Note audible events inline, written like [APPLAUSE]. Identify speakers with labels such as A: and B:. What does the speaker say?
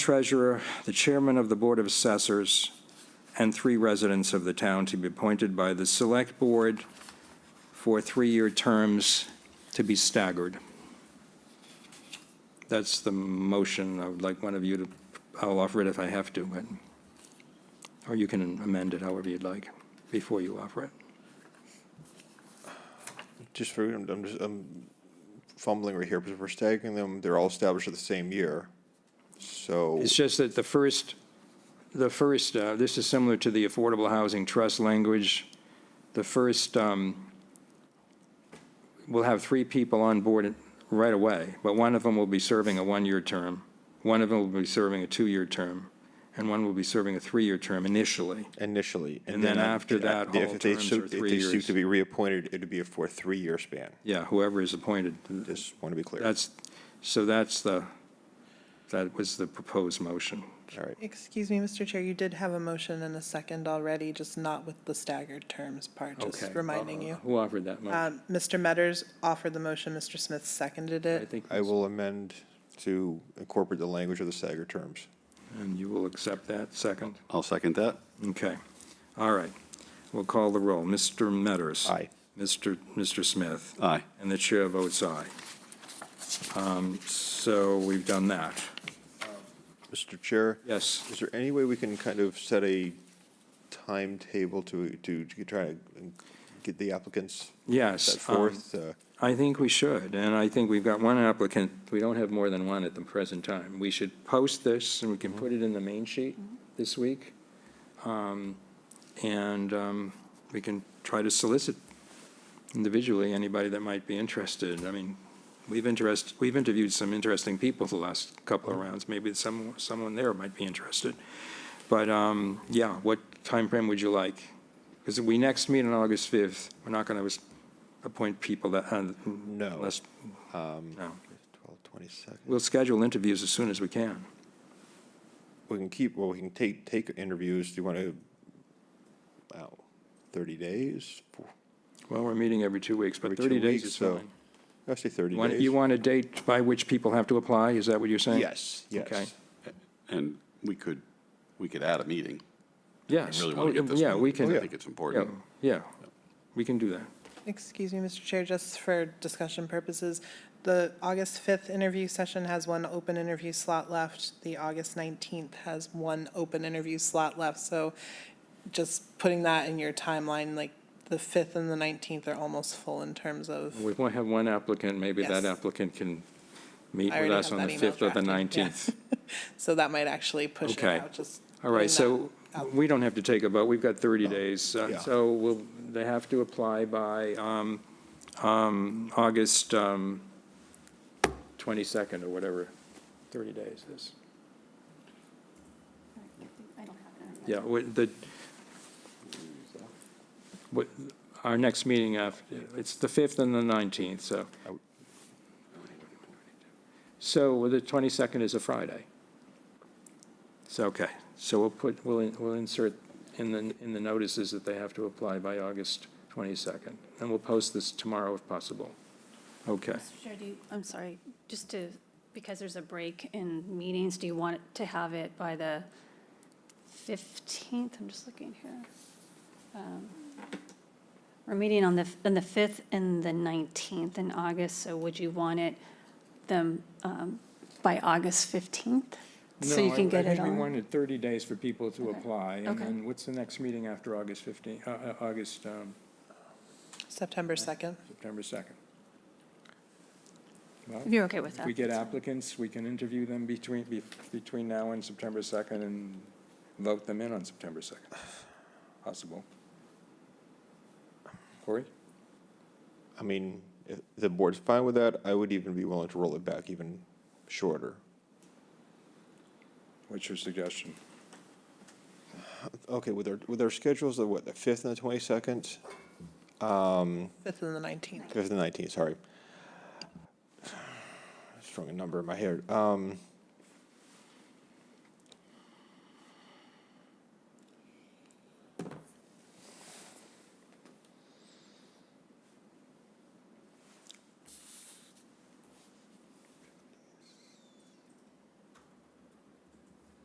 A: treasurer, the chairman of the Board of Assessors, and three residents of the town to be appointed by the Select Board for three-year terms to be staggered. That's the motion. I would like one of you to, I'll offer it if I have to, but, or you can amend it however you'd like before you offer it.
B: Just for, I'm, I'm just, I'm fumbling right here, because we're staggering them, they're all established at the same year. So,
A: It's just that the first, the first, uh, this is similar to the Affordable Housing Trust language. The first, um, we'll have three people on board right away, but one of them will be serving a one-year term, one of them will be serving a two-year term, and one will be serving a three-year term initially.
B: initially.
A: And then after that,
B: if
A: all
B: they
A: terms
B: so-
A: are three
B: If they seek
A: years.
B: to be reappointed, it'd be a for a three-year span.
A: Yeah, whoever is appointed.
B: Just want to be clear.
A: That's, so that's the, that was the proposed motion.
B: All right.
C: Excuse me, Mr. Chair, you did have a motion and a second already, just not with the staggered terms part, just
A: Okay.
C: reminding you.
A: Who offered that motion?
C: Um, Mr. Metters offered the motion, Mr. Smith seconded
A: I
C: it.
A: think,
B: I will amend to incorporate the language of the staggered terms.
A: and you will accept that second?
D: I'll second that.
A: Okay, all right. We'll call the roll. Mr. Metters.
B: Aye.
A: Mr. Mr. Smith.
D: Aye.
A: And the chair votes aye. Um, So we've done that.
B: Mr. Chair?
A: Yes.
B: Is there any way we can kind of set a timetable to, to to try to get the applicants
A: Yes.
B: set
A: um,
B: forth? Uh,
A: I think we should, and I think we've got one applicant. We don't have more than one at the present time. We should post this, and we can put it in the main sheet this week. Um, And um, we can try to solicit individually anybody that might be interested. I mean, we've interest, we've interviewed some interesting people the last couple of rounds. Maybe some, someone there might be interested. But, um, yeah, what time frame would you like? Because we next meet on August 5th. We're not going to appoint people that, uh,
B: No.
A: unless,
B: um,
A: no.
B: 12, 22nd.
A: We'll schedule interviews as soon as we can.
B: We can keep, well, we can take, take interviews, do you want to, wow, thirty days?
A: Well, we're meeting every two weeks, but
B: Every
A: 30
B: two
A: days
B: weeks,
A: is
B: so
A: fine.
B: I say thirty
A: Want- You
B: days.
A: want a date by which people have to apply? Is that what you're saying?
B: Yes,
A: Okay.
B: yes.
D: And we could, we could add a meeting.
A: Yes.
D: I really want
A: Oh,
D: to get this.
A: Yeah, we
D: moving.
A: can,
D: I think it's
A: Oh, yeah,
D: important.
A: yeah, we can do that.
C: Excuse me, Mr. Chair, just for discussion purposes, the August 5th interview session has one open interview slot left. The August 19th has one open interview slot left, so just putting that in your timeline, like the 5th and the 19th are almost full in terms of.
A: We won't have one applicant, maybe that
C: Yes.
A: applicant can meet
C: I
A: with
C: already
A: us
C: have
A: on the
C: that email
A: 5th or the
C: drafted, yeah.
A: 19th.
C: [LAUGHS] So that might actually push it
A: Okay.
C: out, just.
A: All right,
C: putting
A: so we don't have to take a vote, we've got 30 days.
B: yeah.
A: Uh, So will, they have to apply by um, um, August um, 22nd or whatever, 30 days is.
E: I don't have it. in
A: Yeah, we- the, what- our next meeting, af- it's the 5th and the 19th, so. So the 22nd is a Friday. So, okay, so we'll put, we'll in- we'll insert in the, in the notices that they have to apply by August 22nd. And we'll post this tomorrow if possible. Okay.
E: Mr. Chair, do you, I'm sorry, just to, because there's a break in meetings, do you want to have it by the 15th? I'm just looking here. Um, We're meeting on the, on the 5th and the 19th in August, so would you want it them um, by August 15th? So you can get it
A: I think we
E: on?
A: wanted 30 days for people to
E: Okay.
A: apply. And
E: Okay.
A: then what's the next meeting after August 15th, August um,
C: that- September 2nd.
A: September 2nd.
E: If
A: Well,
E: you're okay with
A: If
E: that.
A: we get
E: that's fine.
A: applicants, we can interview them between, be- between now and September 2nd and vote them in on September 2nd. Possible. Corey?
B: I mean, if the board's fine with that, I would even be willing to roll it back even shorter.
A: What's your suggestion?
B: Okay, with our, with our schedules, the what, the fifth and the twenty-second? Um,
C: 5th and the 19th.
B: [SIGHS] fifth and nineteenth, sorry. Strong a number in my head. Um,